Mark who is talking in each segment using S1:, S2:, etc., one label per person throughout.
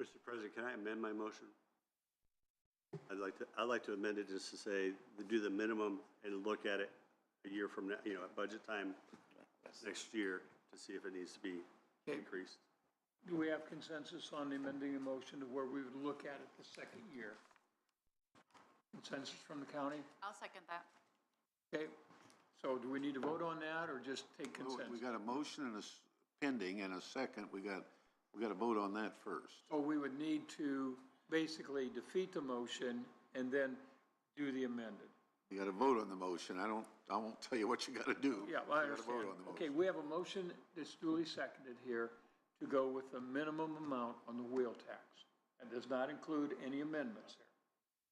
S1: Mr. President, can I amend my motion? I'd like to, I'd like to amend it just to say, to do the minimum and look at it a year from now, you know, at budget time next year to see if it needs to be increased.
S2: Do we have consensus on amending the motion to where we would look at it the second year? Consensus from the county?
S3: I'll second that.
S2: Okay, so do we need to vote on that or just take
S4: Well, We
S2: consensus?
S4: got a motion and a s- pending and a second. We got, we got to vote on that first.
S2: So we would need to basically defeat the motion and then do the amended.
S4: You got to vote on the motion. I don't, I won't tell you what you got to do.
S2: Yeah, well, I
S4: You gotta vote
S2: understand.
S4: on the
S2: Okay,
S4: motion.
S2: we have a motion that's duly seconded here to go with the minimum amount on the wheel tax. and does not include any amendments there.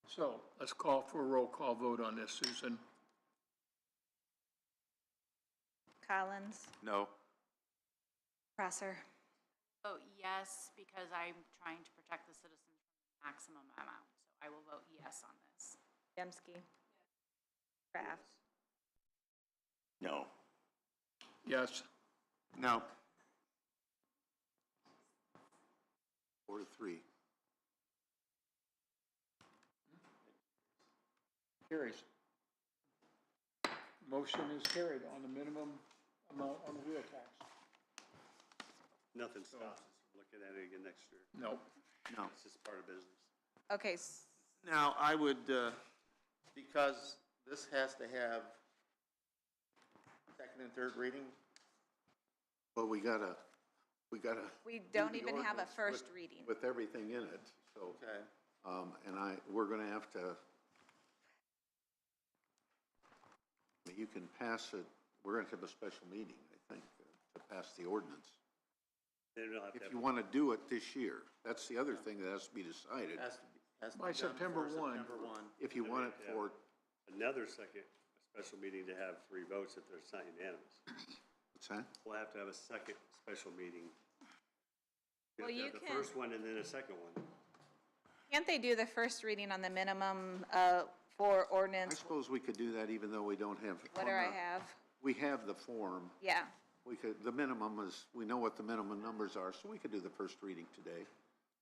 S2: So let's call for a roll call vote on this, Susan.
S5: Collins,
S4: No.
S5: Prosser,
S3: Vote yes, because I'm trying to protect the citizens from the maximum amount, so I will vote yes on this.
S5: Dembski, Kraft,
S4: No.
S2: Yes,
S4: No. Four to three.
S2: carries. Motion is carried on the minimum amount on the wheel tax.
S1: Nothing stops us from looking at it again next year.
S2: No.
S4: No.
S1: It's just part of business.
S5: okay, s-
S6: Now, I would, uh, because this has to have second and third reading,
S4: But we got to, we got to.
S5: we don't even have a first reading.
S4: With everything in it, so.
S6: okay,
S4: Um, and I, we're gonna have to, you can pass it, we're gonna have a special meeting, I think, uh, to pass the ordinance.
S1: Then we'll have to
S4: If
S1: have-
S4: you wanna do it this year, that's the other thing that has to be decided.
S6: has to be, has to be
S2: By
S6: done before
S2: September 1.
S6: September one.
S4: If you want it for,
S1: another second special meeting to have three votes if there's not unanimous.
S4: what's that?
S1: We'll have to have a second special meeting. have
S5: Well,
S1: to
S5: you
S1: have The
S5: can-
S1: first one and then a second one.
S5: Can't they do the first reading on the minimum, uh, for
S4: I
S5: ordinance?
S4: suppose we could do that even though we don't have.
S5: What do I have?
S4: We have the form,
S5: Yeah,
S4: we could, the minimum is, we know what the minimum numbers are, so we could do the first reading today.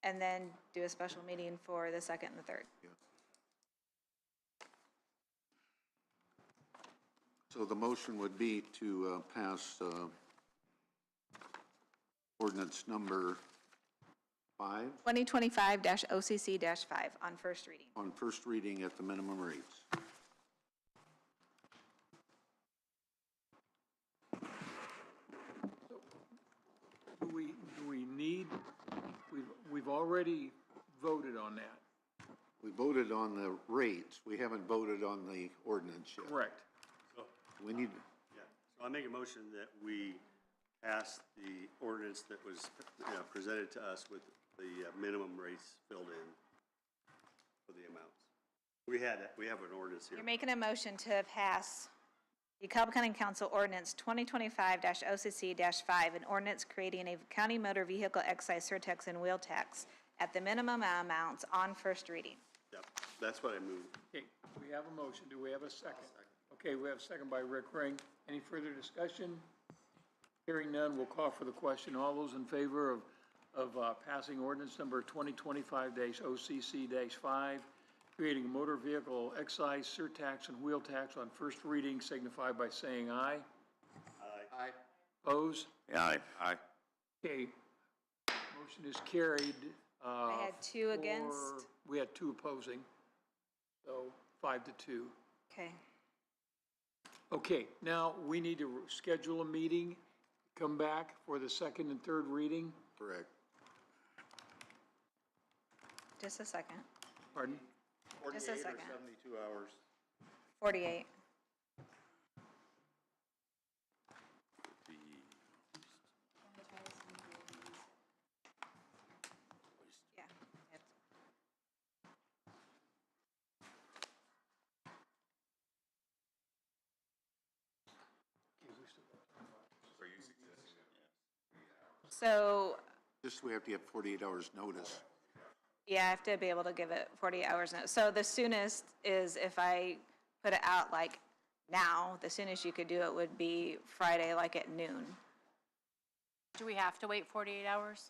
S5: and then do a special meeting for the second and the third.
S4: So the motion would be to uh, pass uh, ordinance number five
S5: Twenty twenty-five dash OCC dash five on first reading.
S4: on first reading at the minimum rates.
S2: Do we, do we need, we've, we've already voted on that.
S4: We voted on the rates, we haven't voted on the ordinance yet.
S2: Correct.
S4: We need,
S1: Yeah, so I make a motion that we pass the ordinance that was uh, presented to us with the uh, minimum rates filled in for the amounts. We had, we have an ordinance here.
S5: You're making a motion to pass the Cobb County Council Ordinance 2025-OCC-5, an ordinance creating a county motor vehicle excise surtax and wheel tax at the minimum amounts on first reading.
S1: Yep, that's what I moved.
S2: Okay, we have a motion. Do we have a second? Okay, we have a second by Rick Ring. Any further discussion? Hearing none, we'll call for the question. All those in favor of, of uh, passing ordinance number 2025-OCC-5, creating a motor vehicle excise, surtax, and wheel tax on first reading signify by saying aye.
S6: Aye.
S2: Opposed?
S7: Aye. Aye.
S2: Okay, motion is carried. I
S5: had two against.
S2: We had two opposing, so five to two.
S5: Okay.
S2: Okay, now we need to schedule a meeting, come back for the second and third reading.
S4: correct.
S5: Just a second.
S2: Pardon?
S5: Just a
S6: Forty-eight or
S5: second.
S6: seventy-two hours.
S5: 48. Yeah. So
S4: Just we have to have 48 hours' notice.
S5: Yeah, I have to be able to give it 40 hours notice. So the soonest is if I put it out like now, the soonest you could do it would be Friday, like at noon.
S3: Do we have to wait 48 hours?